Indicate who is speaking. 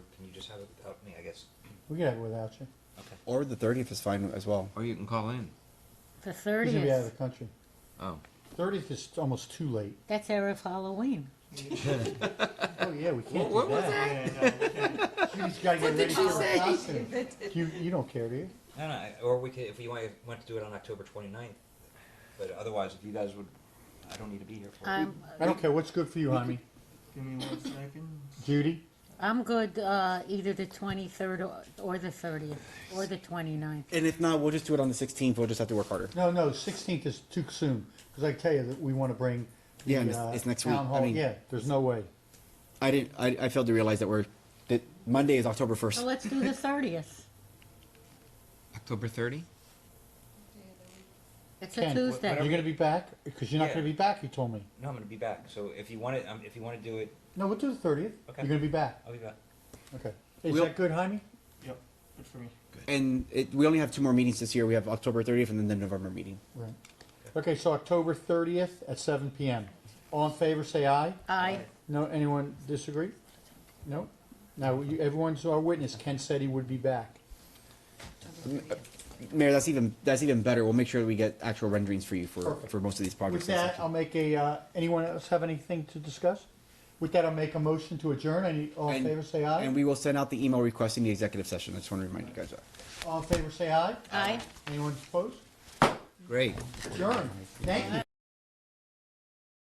Speaker 1: just have it without me, I guess.
Speaker 2: We can have it without you.
Speaker 1: Okay.
Speaker 3: Or the 30th is fine as well.
Speaker 4: Or you can call in.
Speaker 5: The
Speaker 2: He's gonna be out of
Speaker 5: thirtieth.
Speaker 2: the country.
Speaker 4: Oh.
Speaker 2: Thirtieth is almost too late.
Speaker 5: That's era of Halloween.
Speaker 2: Oh yeah, we can't.
Speaker 4: What
Speaker 2: do
Speaker 4: was
Speaker 2: that. You just gotta get ready for her costume. You you don't care, do you?
Speaker 1: No, no, I- or we could, if you want, want to do it on October 29th, but otherwise, if you guys would, I don't need to be here for it.
Speaker 5: I'm
Speaker 2: I don't care. What's good for you, Jaime?
Speaker 6: Uh, Give me one second.
Speaker 2: Judy.
Speaker 5: I'm good uh, either the twenty third or, or the thirtieth or the 29th.
Speaker 3: And if not, we'll just do it on the 16th. We'll just have to work harder.
Speaker 2: No, no. Sixteenth is too soon because I tell you that we want to bring. The,
Speaker 3: Yeah, and it's-
Speaker 2: uh,
Speaker 3: it's next
Speaker 2: town
Speaker 3: week. I
Speaker 2: Hall.
Speaker 3: mean-
Speaker 2: yeah, there's no way.
Speaker 3: I didn't. I, I failed to realize that we're that Monday is October
Speaker 5: So
Speaker 3: 1st.
Speaker 5: let's do the thirtieth.
Speaker 4: October 30?
Speaker 5: It's a
Speaker 2: Ken,
Speaker 5: Tuesday.
Speaker 2: You're gonna be back because you're not
Speaker 1: Yeah.
Speaker 2: gonna be back. You told me.
Speaker 1: No, I'm gonna be back, so if you want it, um, if you wanna do it,
Speaker 2: No, we'll do the thirtieth.
Speaker 1: Okay.
Speaker 2: You're gonna be back.
Speaker 1: I'll be back.
Speaker 2: Okay. Is
Speaker 3: We'll-
Speaker 2: that good, Jaime?
Speaker 6: Yep, good for me.
Speaker 3: And it, we only have two more meetings this year. We have October 30th and then the November meeting.
Speaker 2: Right. Okay, so October thirtieth at seven p.m. All in favor, say aye.
Speaker 5: I
Speaker 2: No, anyone disagree? No? Now, you- everyone's our witness. Ken said he would be back.
Speaker 3: Mayor, that's even that's even better. We'll make sure we get actual renderings for you for
Speaker 2: Perfect.
Speaker 3: for most of these
Speaker 2: With
Speaker 3: projects.
Speaker 2: that, I'll make a, uh, anyone else have anything to discuss? With that, I'll make a motion to adjourn. Any, all in
Speaker 3: And-
Speaker 2: favor, say
Speaker 3: and
Speaker 2: aye.
Speaker 3: we will send out the email requesting the executive session. I just want to remind you guys of that.
Speaker 2: All in favor, say aye.
Speaker 5: Aye.
Speaker 2: Anyone opposed?
Speaker 4: Great.
Speaker 2: Adjourn. Thank you.